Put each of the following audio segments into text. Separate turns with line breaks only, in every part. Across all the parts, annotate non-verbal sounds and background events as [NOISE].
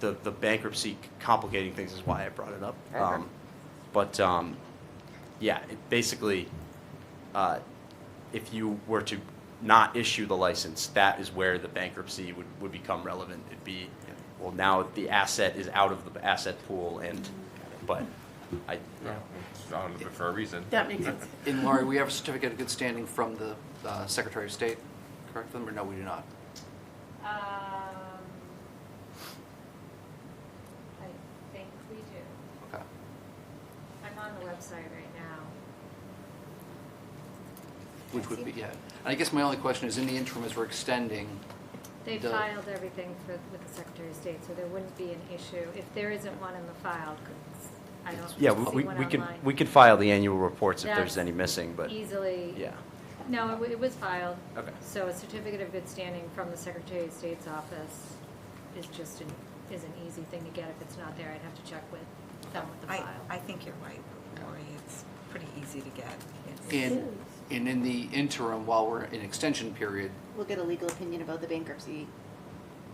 the, the bankruptcy complicating things is why I brought it up.
Okay.
Um, but um, yeah, it basically, uh, if you were to not issue the license, that is where the bankruptcy would, would become relevant. It'd be, well, now the asset is out of the asset pool and, but I,
Yeah, it's on it for a reason.
That makes sense.
And Laurie, we have a certificate of good standing from the uh, Secretary of State, correct them, or no, we do not?
Um, I think we do.
Okay.
I'm on the website right now.
Which would be, yeah. And I guess my only question is, in the interim, as we're extending,
They
The-
filed everything for, with the Secretary of State, so there wouldn't be an issue. If there isn't one in the file, 'cause I don't see
yeah,
one
we, we- we could,
online.
we could file the annual reports if
That's
there's any missing, but,
Easily.
yeah.
No, it wa- it was filed.
Okay.
So a certificate of good standing from the Secretary of State's office is just an, is an easy thing to get. If it's not there, I'd have to check with them with the
I,
file.
I think you're right, Lori, it's pretty easy to get. It's-
and, and in the interim, while we're in extension period,
We'll get a legal opinion about the bankruptcy.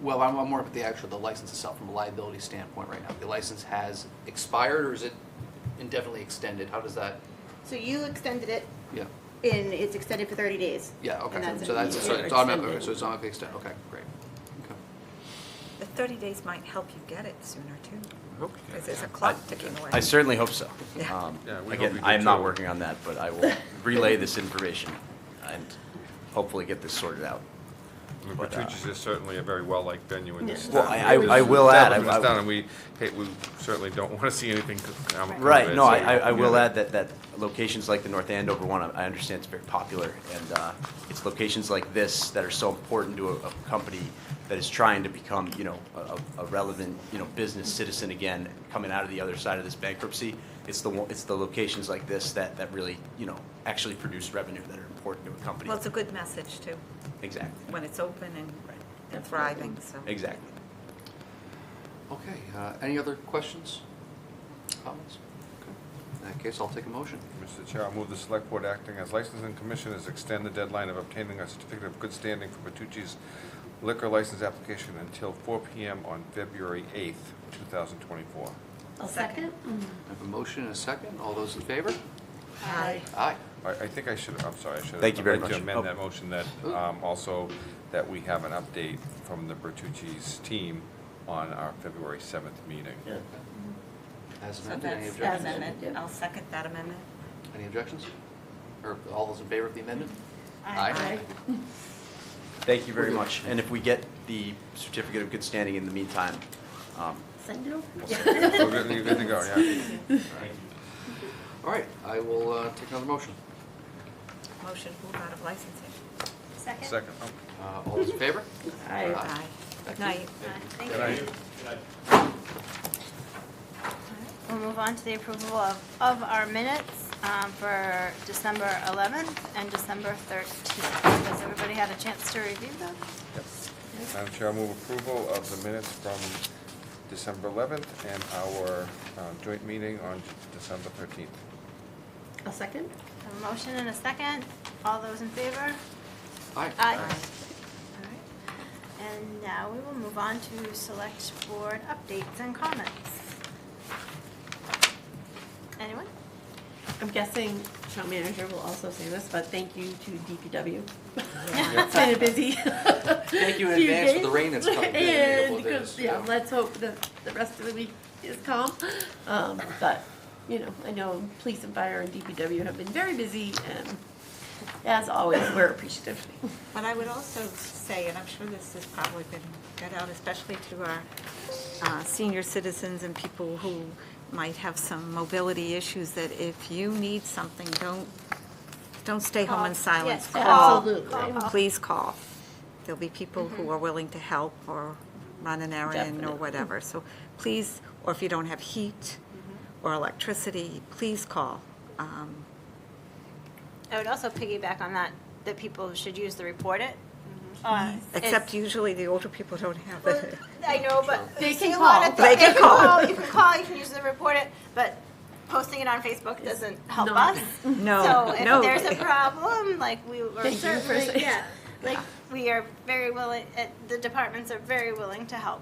well, I'm I'm more about the actual, the license itself from a liability standpoint right now. The license has expired, or is it indefinitely extended? How does that,
So you extended it,
yeah,
and it's extended for 30 days.
yeah, okay.
And that's
So that's,
it.
so it's automatic, okay, so it's automatically extended, okay, great. Okay.
The 30 days might help you get it sooner too,
Hope you
because there's a clock ticking away.
I certainly hope so.
Yeah.
Um,
Yeah, we hope you
Again,
do
I am not
too.
working on that, but I will relay this information and hopefully get this sorted out.
I mean,
But, uh,
Bertucci's is certainly a very well-liked venue in this
Well,
town.
I- I-
It's
I will add, I-
established in this
I-
town, And we, hey, we certainly don't want to see anything come. of
Right,
it,
no,
so
I,
we-
I I will
yeah.
add that, that locations like the North Andover one, I I understand it's very popular, and uh, it's locations like this that are so important to a, a company that is trying to become, you know, a, a relevant, you know, business citizen again, coming out of the other side of this bankruptcy. It's the, one- it's the locations like this that, that really, you know, actually produce revenue that are important to a company.
Well, it's a good message too,
Exactly,
when it's open and-
Right.
and thriving, so.
exactly.
Okay, uh, any other questions, comments? Okay. In that case, I'll take a motion.
Mr. Chair, I'll move the Select Board acting as licensing commissioners extend the deadline of obtaining a certificate of good standing for Bertucci's liquor license application until 4 PM on February 8th, 2024.
I'll second.
I have a motion and a second. All those in favor?
Aye.
Aye.
I, I think I should, I'm sorry, I should.
Thank you very
I'd like to
much.
amend that
Oh.
motion that, um, also, that we have an update from the Bertucci's team on our February 7th meeting.
As
So
amended, any
that's that
objections?
amendment, I'll second that amendment.
Any objections? Or all those in favor of the amendment?
Aye.
Thank you very much, and if we get the certificate of good standing in the meantime, um,
Send it over.
We'll see. We're good- You're good to go, yeah.
All right, I will uh, take another motion.
Motion to move out of licensing.
Second. oh.
Uh, All those in favor?
Aye.
Thank you.
Night.
Good night.
We'll move on to the approval of, of our minutes um, for December 11th and December 13th. Has everybody had a chance to review them?
Madam Chair, I move approval of the minutes from December 11th and our uh, joint meeting on December 13th.
A second?
A motion and a second. All those in favor?
Aye.
All right. And now we will move on to select board updates and comments. Anyone?
I'm guessing town manager will also say this, but thank you to DPW. It's been a busy. Thank
you in advance for the rain that's coming in a couple of days,
Yeah,
yeah.
let's hope that the rest of the week is calm. Um, But, you know, I know police and fire and DPW have been very busy and as always, we're appreciative.
But I would also say, and I'm sure this has probably been got out, especially to our uh, senior citizens and people who might have some mobility issues, that if you need something, don't, don't stay home in
Call.
silence.
Yes,
Call.
absolutely. Call.
Please call. There'll be people who are willing to help or run an errand or
Definitely.
whatever. So please, or if you don't have heat or electricity, please call. Um,
I would also piggyback on that, that people should use the report it.
[LAUGHS]
Uh,
Except usually the older people don't have it.
I know, but they
They can
can
call.
They can call.
You can call. You can use the report it, but posting it on Facebook doesn't help
not-
us.
[LAUGHS] No,
So if
no.
there's a problem, like we were
Thank you for
certainly
saying-
yeah, like we eh, are very willing. uh, The departments are very willing to help.